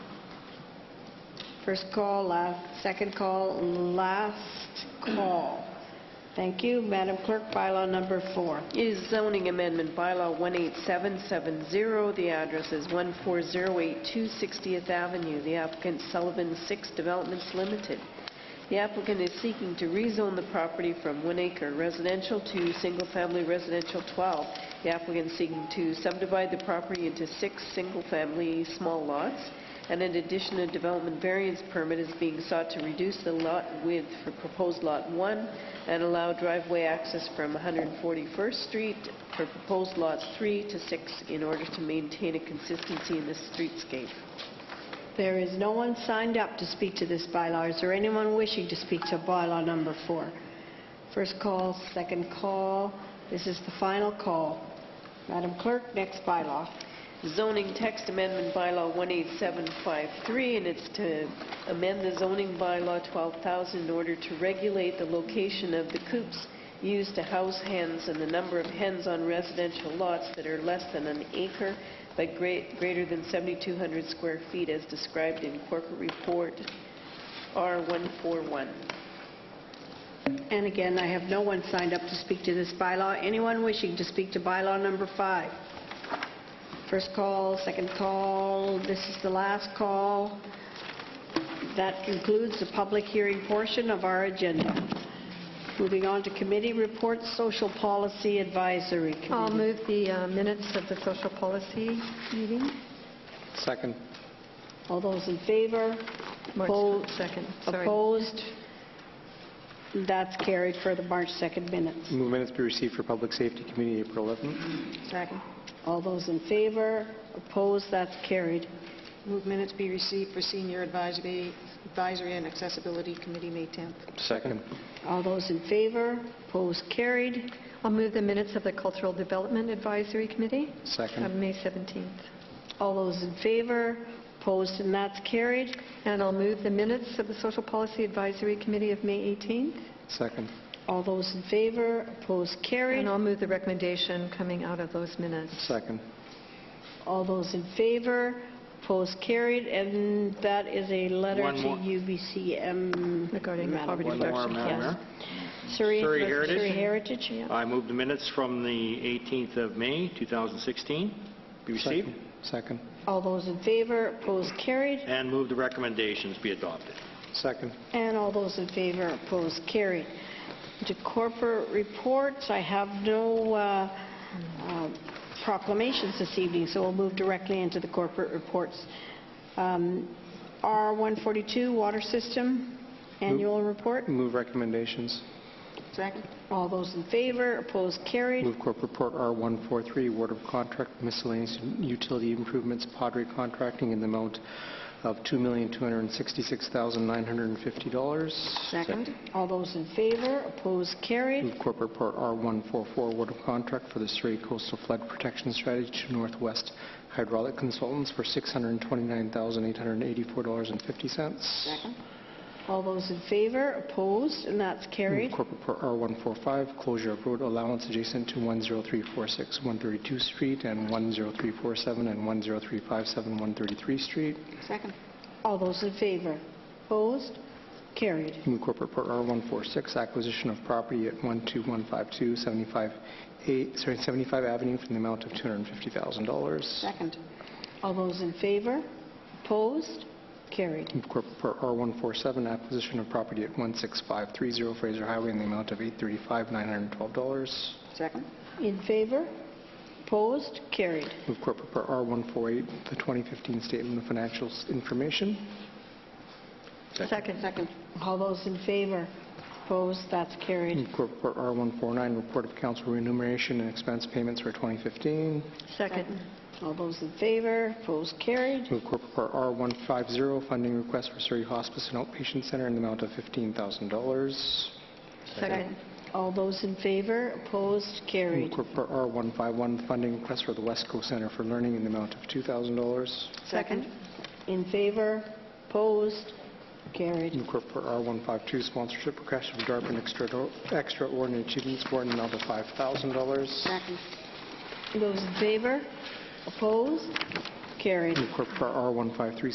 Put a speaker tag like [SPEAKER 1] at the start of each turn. [SPEAKER 1] First call, last, second call, last call. Thank you. Madam Clerk, bylaw number four.
[SPEAKER 2] Is zoning amendment bylaw 18770. The address is 14082 60th Avenue. The applicant Sullivan Six Developments Limited. The applicant is seeking to rezone the property from one acre residential to single-family residential 12. The applicant is seeking to subdivide the property into six single-family small lots, and in addition, a development variance permit is being sought to reduce the lot width for proposed Lot 1 and allow driveway access from 141st Street for proposed Lots 3 to 6 in order to maintain a consistency in the streetscape.
[SPEAKER 1] There is no one signed up to speak to this bylaw. Is there anyone wishing to speak to bylaw number four? First call, second call. This is the final call. Madam Clerk, next bylaw.
[SPEAKER 2] zoning text amendment bylaw 18753, and it's to amend the zoning bylaw 12,000 in order to regulate the location of the coops used to house hens and the number of hens on residential lots that are less than an acre but great- greater than 7,200 square feet as described in corporate report R141.
[SPEAKER 1] And again, I have no one signed up to speak to this bylaw. Anyone wishing to speak to bylaw number five? First call, second call, this is the last call. That concludes the public hearing portion of our agenda. Moving on to committee reports, Social Policy Advisory
[SPEAKER 3] I'll
[SPEAKER 1] Committee.
[SPEAKER 3] move the uh, minutes of the social policy meeting.
[SPEAKER 4] Second.
[SPEAKER 1] All those in favor?
[SPEAKER 3] March
[SPEAKER 1] Oppo-
[SPEAKER 3] 2nd, sorry.
[SPEAKER 1] Opposed? That's carried for the March 2nd minutes.
[SPEAKER 4] Move minutes be received for Public Safety Committee, April 11th.
[SPEAKER 1] Second. All those in favor? Opposed? That's carried.
[SPEAKER 5] Move minutes be received for Senior Advisory Advisory and Accessibility Committee, May 10th.
[SPEAKER 4] Second.
[SPEAKER 1] All those in favor, opposed, carried.
[SPEAKER 3] I'll move the minutes of the Cultural Development Advisory Committee of
[SPEAKER 4] Second.
[SPEAKER 3] May 17th.
[SPEAKER 1] All those in favor, opposed, and that's carried.
[SPEAKER 3] And I'll move the minutes of the Social Policy Advisory Committee of May 18th.
[SPEAKER 4] Second.
[SPEAKER 1] All those in favor, opposed, carried.
[SPEAKER 3] And I'll move the recommendation coming out of those minutes.
[SPEAKER 4] Second.
[SPEAKER 1] All those in favor, opposed, carried, and that is a letter
[SPEAKER 4] One
[SPEAKER 1] to
[SPEAKER 4] more.
[SPEAKER 1] UBCM.
[SPEAKER 3] Regarding the
[SPEAKER 1] Madam
[SPEAKER 3] poverty
[SPEAKER 1] Clerk.
[SPEAKER 4] One more,
[SPEAKER 3] reduction.
[SPEAKER 4] Madam Mayor.
[SPEAKER 1] Surrey
[SPEAKER 6] Surrey Heritage.
[SPEAKER 1] Surrey Heritage.
[SPEAKER 3] Yeah.
[SPEAKER 6] I move the minutes from the 18th of May, 2016, be received,
[SPEAKER 4] Second. Second.
[SPEAKER 1] All those in favor, opposed, carried.
[SPEAKER 6] and move the recommendations be adopted.
[SPEAKER 4] Second.
[SPEAKER 1] And all those in favor, opposed, carried. To corporate reports, I have no uh, uh, proclamations this evening, so we'll move directly into the corporate reports. Um, R142, Water System, Annual Report.
[SPEAKER 4] Move recommendations.
[SPEAKER 5] Second?
[SPEAKER 1] All those in favor, opposed, carried.
[SPEAKER 4] Move Corp. Report R143, award of contract miscellaneous utility improvements, Padre Contracting, in the amount of $2,266,950.
[SPEAKER 1] Second. All those in favor, opposed, carried.
[SPEAKER 4] Move Corp. Report R144, award of contract for the Surrey Coastal Flood Protection Strategy to Northwest Hydraulic Consultants for $629,884.50.
[SPEAKER 1] All those in favor, opposed, and that's carried.
[SPEAKER 4] Move Corp. Report R145, closure of road allowance adjacent to 10346 132 Street and 10347 and 10357 133 Street.
[SPEAKER 5] Second.
[SPEAKER 1] All those in favor, opposed, carried.
[SPEAKER 4] Move Corp. Report R146, acquisition of property at 12152 75 eight- sorry, 75 Avenue for the amount of $250,000.
[SPEAKER 5] Second.
[SPEAKER 1] All those in favor? Opposed? Carried.
[SPEAKER 4] Move Corp. Report R147, acquisition of property at 16530 Fraser Highway in the amount of $835,912.
[SPEAKER 5] Second.
[SPEAKER 1] In favor? Opposed? Carried.
[SPEAKER 4] Move Corp. Report R148, the 2015 Statement of Financial Information.
[SPEAKER 3] Second.
[SPEAKER 5] Second.
[SPEAKER 1] All those in favor? Opposed? That's carried.
[SPEAKER 4] Move Corp. Report R149, Report of Council Remuneration and Expense Payments for 2015.
[SPEAKER 3] Second.
[SPEAKER 1] All those in favor? Opposed? Carried.
[SPEAKER 4] Move Corp. Report R150, Funding Request for Surrey Hospice and Outpatient Center in the amount of $15,000.
[SPEAKER 3] Second.
[SPEAKER 1] All those in favor? Opposed?
[SPEAKER 4] Move
[SPEAKER 1] Carried.
[SPEAKER 4] Corp. Report R151, Funding Request for the West Coast Center for Learning in the amount of $2,000.
[SPEAKER 3] Second.
[SPEAKER 1] In favor? Opposed? Carried.
[SPEAKER 4] New Corp. R152 sponsorship request of DARPA and extra- Extraordinary Achievement Award in the amount of $5,000.
[SPEAKER 5] Second.
[SPEAKER 1] Those in favor? Opposed? Carried.
[SPEAKER 4] New Corp. R153